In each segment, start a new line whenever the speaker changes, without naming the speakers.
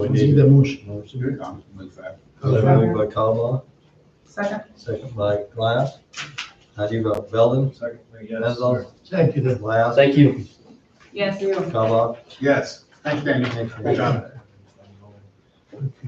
We
need
need
that
a
motion.
motion. I'll move that.
Second.
Moved by Kalmbach,
Second,
second by Glass. How do you vote? Belden?
Second.
Menzel?
Thank you, then.
Glass?
Thank you.
yes.
Kalmbach?
Yes, thanks, Danny. Good job.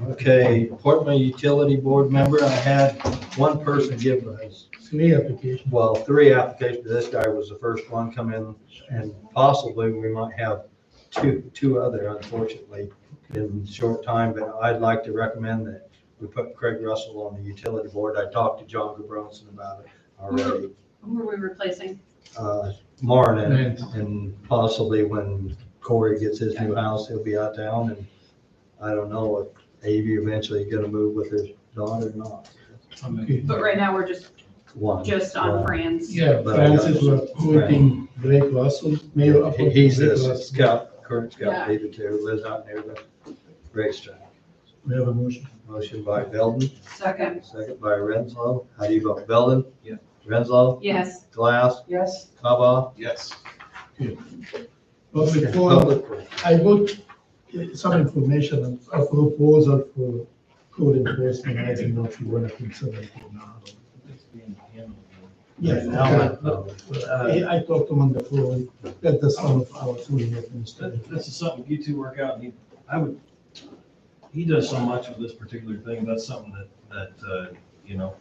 Okay, Portman Utility Board member, I had one person give us
Three applications.
well, three applications, this guy was the first one come in, and possibly we might have two, two other unfortunately in short time, but I'd like to recommend that we put Craig Russell on the utility board. I talked to John Gabronson about it already.
Who are we replacing?
Uh, Marlin,
Right.
and possibly when Corey gets his new house, he'll be out of town, and I don't know if Avi eventually gonna move with his daughter or not.
Okay.
But right now, we're just,
One.
just on Fran's.
Yeah, Francis was quoting Blake Russell, Mayor of.
He- He's
Blake
a
Russell.
scout, current scout
Yeah.
leader too, lives out near the racetrack.
We have a motion.
Motion by Belden,
Second,
second by Renslow. How do you vote, Belden?
Yeah.
Renslow,
yes.
Glass,
Yes.
Kaba?
Yes.
But before,
Public.
I got uh, some information, on a proposal for code enforcement, I don't know if you want to consider it or not. Yes, I
uh,
I talked to him on the phone, that the son of our two administrators.
That- This is something you two work out, and he, I would, he does so much of this particular thing, that's something that, that, uh, you know,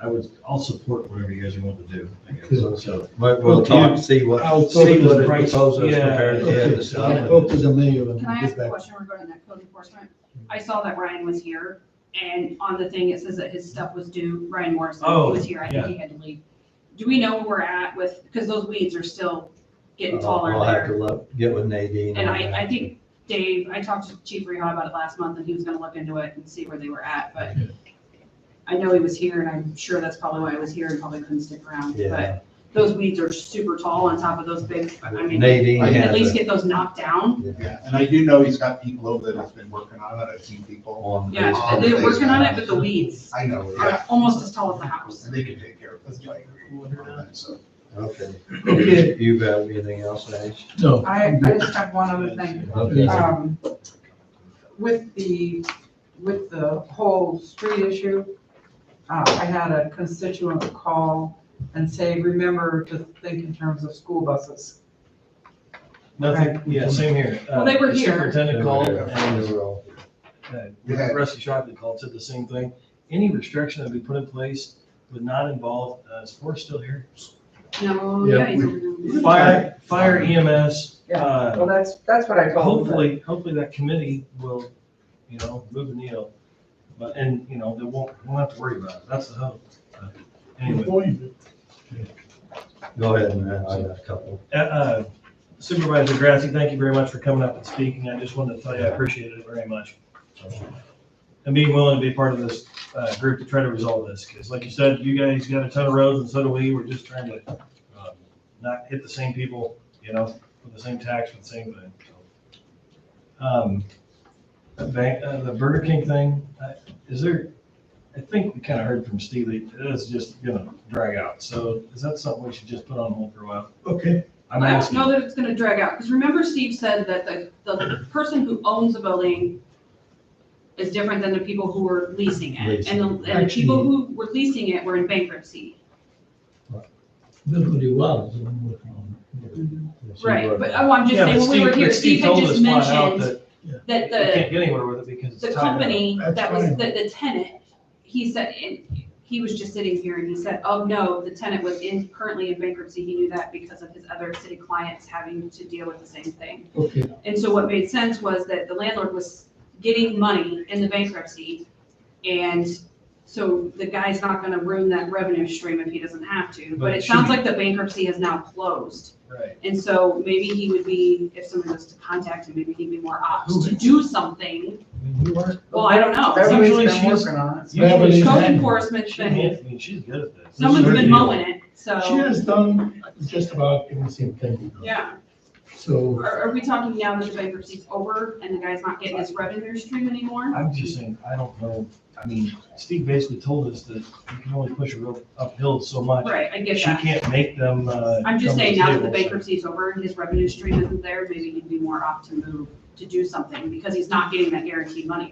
I would, I'll support whatever you guys want to do, I guess, so.
But we'll talk, see
I'll
what,
talk
see
to
what
the
it
price.
proposes
Yeah.
compared to the
Okay,
other
so I'll
stuff.
talk to the mayor and
Can I
get
ask a
back.
question regarding that code enforcement? I saw that Ryan was here, and on the thing, it says that his stuff was due, Ryan Morrison
Oh,
was here, I think he had to leave. Do we know where we're at with, because those weeds are still getting
I'll
taller
I'll Uh, have to
there.
look, get with Nadine.
And
on that.
I, I think Dave, I talked to Chief Rehaw about it last month, and he was gonna look into it and see where they were at, but I know he was here, and I'm sure that's probably why he was here and probably couldn't stick around, but
Yeah,
those weeds are super tall on top of those big, I mean,
Nadine
I can at least
has it
get those knocked down.
Yeah, and I do know he's got people over there that's been working on it, I've seen people.
on. the
Yeah,
Oh,
basement.
they're working on it, but the weeds
I know, yeah,
are almost as tall as the house.
and they can take care of this, like, so.
Okay.
Okay.
You have anything else, Ash?
No.
I, I just have one other thing.
Okay.
Um, with the, with the whole street issue, uh, I had a constituent call and say, remember to think in terms of school buses.
Nothing, yeah, same here.
Well, they were
Uh, the
here.
Superintendent called,
Yeah.
and, uh, Rusty Shockley called, said the same thing. Any restriction that we put in place would not involve, uh, is Forrest still here?
No,
Yeah,
yeah.
we-
he's over there.
Fire, fire EMS, uh,
Well, that's, that's what I told them.
Hopefully, hopefully that committee will, you know, move the needle, but, and, you know, they won't, won't have to worry about it, that's the hope. But Anyway,
Point.
Go ahead, and I got a couple.
uh, uh, Supervisor Grassi, thank you very much for coming up and speaking, I just wanted to tell you, I appreciate it very much. And being willing to be part of this, uh, group to try to resolve this, because like you said, you guys got a ton of roads and so do we, we're just trying to, um, not hit the same people, you know, with the same tax, with the same thing, so. Um, the bank, uh, the Burger King thing, uh, is there, I think we kind of heard from Steve, that it's just gonna drag out, so is that something we should just put on hold for a while?
Okay,
I'm
I don't
asking.
know that it's gonna drag out, because remember Steve said that the, the person who owns the building is different than the people who were leasing it. And the, and the people who were leasing it were in bankruptcy.
that would be wild.
Right, but oh, I'm just
Yeah,
saying,
but
when we were
Steve-
here,
but
Steve had
told
just
us flat out
mentioned
that
that
We
the
can't get anywhere with it because
the
it's tied up.
company
That's
that was,
fine.
the, the tenant, he said, and he was just sitting here and he said, oh, no, the tenant was in, currently in bankruptcy. He knew that because of his other city clients having to deal with the same thing.
Okay,
And so what made sense was that the landlord was getting money in the bankruptcy. And so the guy's not gonna ruin that revenue stream if he doesn't have to.
But
But it
it
sounds
should-
like the bankruptcy has now closed.
Right.
And so maybe he would be, if someone was to contact him, maybe he'd be more
Who
apt to do something.
I mean, you weren't-
Well, I don't know.
Everybody's
Usually
been
she's-
working on
Beverly
it.
Usually she-
Code
Beverly's-
enforcement's
she
been,
handles- I mean, she's good at this.
someone's
This
been
is her
mowing it,
she
so,
has done just about the same thing.
yeah.
So,
Are, are we talking now that the bankruptcy's over and the guy's not getting his revenue stream
deal.
anymore?
I'm just saying, I don't know, I mean, Steve basically told us that you can only push a rope uphill so much.
Right, I get
She
that.
can't make them, uh.
I'm just
come to
saying now that the
table, so-
bankruptcy's over and his revenue stream isn't there, maybe he'd be more apt to move to do something because he's not getting that guaranteed money